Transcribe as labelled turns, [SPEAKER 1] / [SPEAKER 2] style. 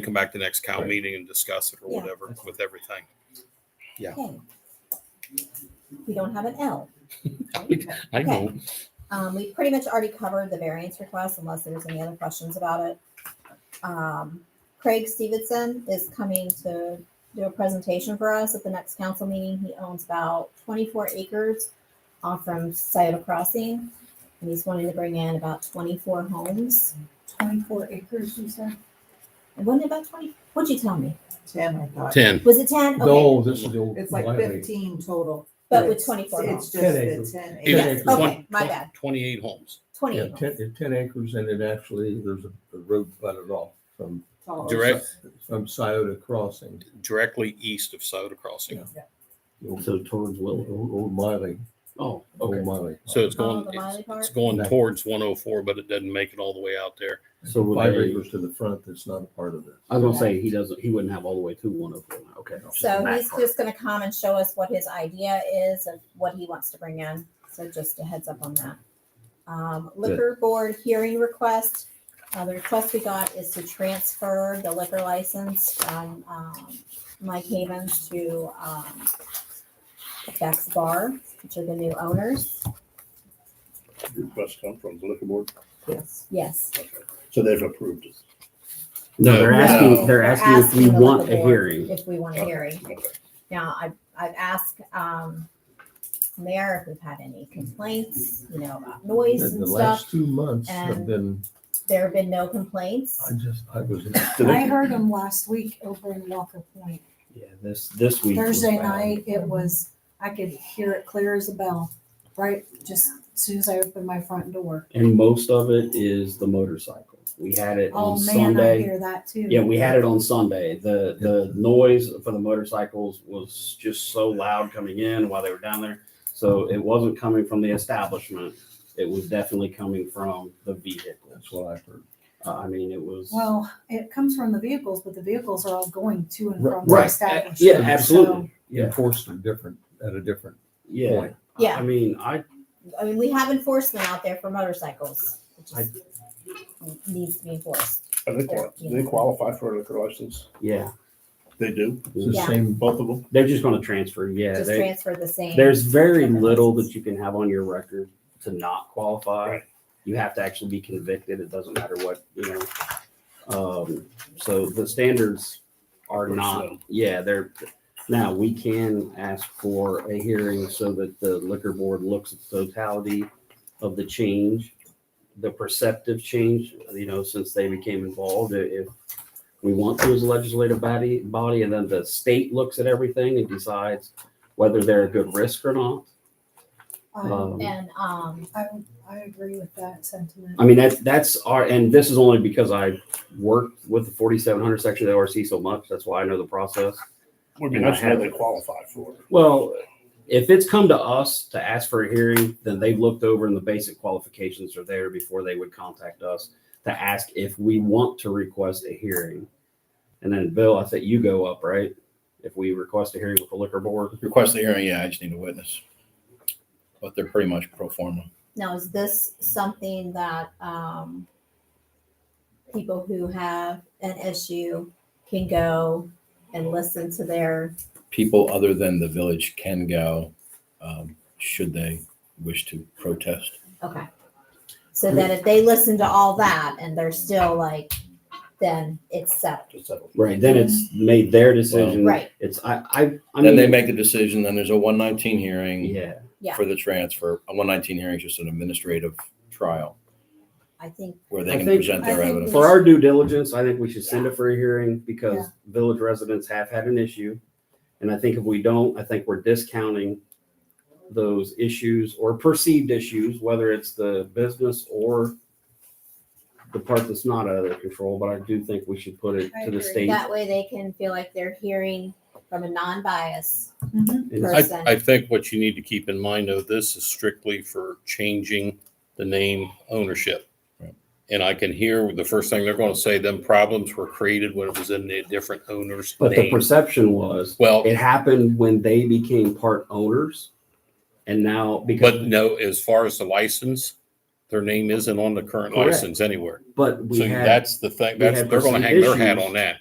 [SPEAKER 1] can come back to next cow meeting and discuss it or
[SPEAKER 2] Yeah.
[SPEAKER 1] whatever with everything.
[SPEAKER 2] Okay. We don't have an L.
[SPEAKER 3] I know.
[SPEAKER 2] Um, we pretty much already covered the variance request unless there's any other questions about it. Um, Craig Stevenson is coming to do a presentation for us at the next council meeting. He owns about twenty-four acres off from Scioto Crossing. And he's wanting to bring in about twenty-four homes.
[SPEAKER 4] Twenty-four acres, you said?
[SPEAKER 2] And wasn't it about twenty? What'd you tell me?
[SPEAKER 4] Ten, I thought.
[SPEAKER 1] Ten.
[SPEAKER 2] Was it ten? Okay,
[SPEAKER 5] No, this is the old.
[SPEAKER 4] It's like
[SPEAKER 5] Miley.
[SPEAKER 4] fifteen total.
[SPEAKER 2] But with
[SPEAKER 4] it's-
[SPEAKER 2] 24
[SPEAKER 4] It's
[SPEAKER 2] homes.
[SPEAKER 4] just
[SPEAKER 5] 10
[SPEAKER 4] the
[SPEAKER 5] acres.
[SPEAKER 4] ten
[SPEAKER 5] Yeah.
[SPEAKER 4] acres.
[SPEAKER 2] Yes,
[SPEAKER 5] acres.
[SPEAKER 2] okay, my bad.
[SPEAKER 1] Twenty-eight homes
[SPEAKER 5] Yeah,
[SPEAKER 2] Twenty-eight
[SPEAKER 5] ten,
[SPEAKER 2] homes.
[SPEAKER 5] it's ten acres and it actually, there's a, a road butted off from.
[SPEAKER 4] total.
[SPEAKER 1] Direct.
[SPEAKER 5] From Scioto Crossing,
[SPEAKER 1] directly east of Soda Crossing.
[SPEAKER 5] Yeah.
[SPEAKER 4] Yeah.
[SPEAKER 5] the old,
[SPEAKER 3] So towards
[SPEAKER 5] old,
[SPEAKER 3] Willow.
[SPEAKER 5] old Miley,
[SPEAKER 3] Oh,
[SPEAKER 5] old Miley.
[SPEAKER 1] So it's
[SPEAKER 2] Oh,
[SPEAKER 1] going,
[SPEAKER 2] the
[SPEAKER 1] it's-
[SPEAKER 2] Miley
[SPEAKER 1] it's
[SPEAKER 2] part?
[SPEAKER 1] going
[SPEAKER 5] Right.
[SPEAKER 1] towards one oh four, but it doesn't make it all the way out there.
[SPEAKER 3] So would
[SPEAKER 5] Five
[SPEAKER 3] they-
[SPEAKER 5] acres to the front that's not a part of this.
[SPEAKER 3] I was gonna say, he doesn't, he wouldn't have all the way to one oh four. Okay. just the
[SPEAKER 2] So
[SPEAKER 3] back
[SPEAKER 2] he's
[SPEAKER 3] part.
[SPEAKER 2] just gonna come and show us what his idea is of what he wants to bring in. So just a heads up on that. Um, liquor board hearing request. Uh, the request we got is to transfer the liquor license from, um, Mike Havens to, um, Beck's Bar, which are the new owners.
[SPEAKER 6] request come from the liquor board,
[SPEAKER 4] Yes.
[SPEAKER 2] Yes,
[SPEAKER 6] so they've approved it.
[SPEAKER 3] No, they're
[SPEAKER 2] No.
[SPEAKER 3] asking, they're
[SPEAKER 2] They're
[SPEAKER 3] asking if we
[SPEAKER 2] asking the
[SPEAKER 3] want
[SPEAKER 2] liquor
[SPEAKER 3] a
[SPEAKER 2] board.
[SPEAKER 3] hearing.
[SPEAKER 2] if we want a hearing.
[SPEAKER 6] Okay.
[SPEAKER 2] Now, I've, I've asked, um, mayor if we've had any complaints, you know, about noise
[SPEAKER 5] And
[SPEAKER 2] and
[SPEAKER 5] the
[SPEAKER 2] stuff.
[SPEAKER 5] last two months have
[SPEAKER 2] and-
[SPEAKER 5] been,
[SPEAKER 2] There have been no complaints.
[SPEAKER 5] I just, I was.
[SPEAKER 4] I heard them last week over in Walker Point.
[SPEAKER 3] Yeah, this, this week. was
[SPEAKER 4] Thursday
[SPEAKER 3] bad.
[SPEAKER 4] night, it was, I could hear it clear as a bell, right? Just as soon as I opened my front door.
[SPEAKER 3] And most of it is the motorcycle. We had it on
[SPEAKER 4] Oh, man, I
[SPEAKER 3] Sunday.
[SPEAKER 4] hear that too.
[SPEAKER 3] Yeah, we had it on Sunday. The, the noise for the motorcycles was just so loud coming in while they were down there. So it wasn't coming from the establishment. It was definitely coming from the vehicle.
[SPEAKER 5] That's what I've heard.
[SPEAKER 3] Uh, I mean, it was.
[SPEAKER 4] Well, it comes from the vehicles, but the vehicles are all going to and
[SPEAKER 3] Ri-
[SPEAKER 4] from the
[SPEAKER 3] right.
[SPEAKER 4] establishment.
[SPEAKER 3] Yeah,
[SPEAKER 4] so-
[SPEAKER 3] absolutely. Yeah,
[SPEAKER 5] Enforced a different, at a different
[SPEAKER 3] yeah.
[SPEAKER 5] point.
[SPEAKER 2] Yeah.
[SPEAKER 3] I mean, I,
[SPEAKER 2] I mean, we have enforcement out there for motorcycles. It just
[SPEAKER 3] I-
[SPEAKER 2] Needs to be enforced.
[SPEAKER 6] Are they, qual- do they qualify for a liquor license?
[SPEAKER 3] yeah,
[SPEAKER 6] They do,
[SPEAKER 5] It's the
[SPEAKER 2] Yeah.
[SPEAKER 5] same,
[SPEAKER 6] both of them?
[SPEAKER 3] they're just gonna transfer. Yeah,
[SPEAKER 2] Just
[SPEAKER 3] they,
[SPEAKER 2] transfer the same.
[SPEAKER 3] There's very
[SPEAKER 2] Different
[SPEAKER 3] little
[SPEAKER 2] license.
[SPEAKER 3] that you can have on your record to not qualify.
[SPEAKER 6] Right.
[SPEAKER 3] You have to actually be convicted. It doesn't matter what, you know. Um, so the standards are
[SPEAKER 6] Pretty
[SPEAKER 3] not,
[SPEAKER 6] slow.
[SPEAKER 3] yeah, they're, now we can ask for a hearing so that the liquor board looks at the totality of the change, the perceptive change, you know, since they became involved, i- if we want to as a legislative body, body, and then the state looks at everything and decides whether they're a good risk or not.
[SPEAKER 4] I,
[SPEAKER 3] Um,
[SPEAKER 2] And, um,
[SPEAKER 4] I, I agree with that sentiment.
[SPEAKER 3] I mean, that's, that's our, and this is only because I worked with the forty-seven hundred section of the ORC so much, that's why I know the process.
[SPEAKER 6] Would be nice to know they qualify for it.
[SPEAKER 3] Well, if it's come to us to ask for a hearing, then they've looked over and the basic qualifications are there before they would contact us to ask if we want to request a hearing. And then Bill, I think you go up, right? If we request a hearing with the liquor board.
[SPEAKER 7] Request the hearing, yeah, I just need a witness. But they're pretty much pro forma.
[SPEAKER 2] now is this something that, um, people who have an issue can go and listen to their,
[SPEAKER 7] People other than the village can go, um, should they wish to protest.
[SPEAKER 2] okay. So then if they listen to all that and they're still like, then it's set,
[SPEAKER 7] Just settle.
[SPEAKER 3] Right. Then it's made their decision.
[SPEAKER 2] right?
[SPEAKER 3] It's, I, I, I mean.
[SPEAKER 7] Then they make the decision, then there's a one nineteen hearing
[SPEAKER 3] Yeah.
[SPEAKER 2] Yeah.
[SPEAKER 7] for the transfer. A one nineteen hearing is just an administrative trial
[SPEAKER 2] I think
[SPEAKER 7] where
[SPEAKER 3] I
[SPEAKER 7] they can
[SPEAKER 3] think-
[SPEAKER 7] present their
[SPEAKER 4] I think
[SPEAKER 7] evidence.
[SPEAKER 3] For our due diligence, I think we should send it for a hearing because village residents have had an issue. And I think if we don't, I think we're discounting those issues or perceived issues, whether it's the business or the part that's not out of their control, but I do think we should put it
[SPEAKER 4] I
[SPEAKER 3] to the
[SPEAKER 4] agree.
[SPEAKER 3] state.
[SPEAKER 2] That way they can feel like they're hearing from a non-bias.
[SPEAKER 4] Mhm.
[SPEAKER 3] and-
[SPEAKER 2] Right.
[SPEAKER 1] I, I think what you need to keep in mind though, this is strictly for changing the name ownership.
[SPEAKER 7] Right.
[SPEAKER 1] And I can hear the first thing they're going to say, them problems were created when it was in the different owner's
[SPEAKER 3] But the
[SPEAKER 1] name.
[SPEAKER 3] perception was,
[SPEAKER 1] Well,
[SPEAKER 3] it happened when they became part owners. And now
[SPEAKER 1] but
[SPEAKER 3] because,
[SPEAKER 1] no, as far as the license, their name isn't on the current
[SPEAKER 3] Correct.
[SPEAKER 1] license anywhere.
[SPEAKER 3] but we
[SPEAKER 1] So
[SPEAKER 3] had.
[SPEAKER 1] that's the thing,
[SPEAKER 3] we
[SPEAKER 1] that's,
[SPEAKER 3] had
[SPEAKER 1] they're gonna
[SPEAKER 3] perceived
[SPEAKER 1] hang their hat
[SPEAKER 3] issues.
[SPEAKER 1] on that.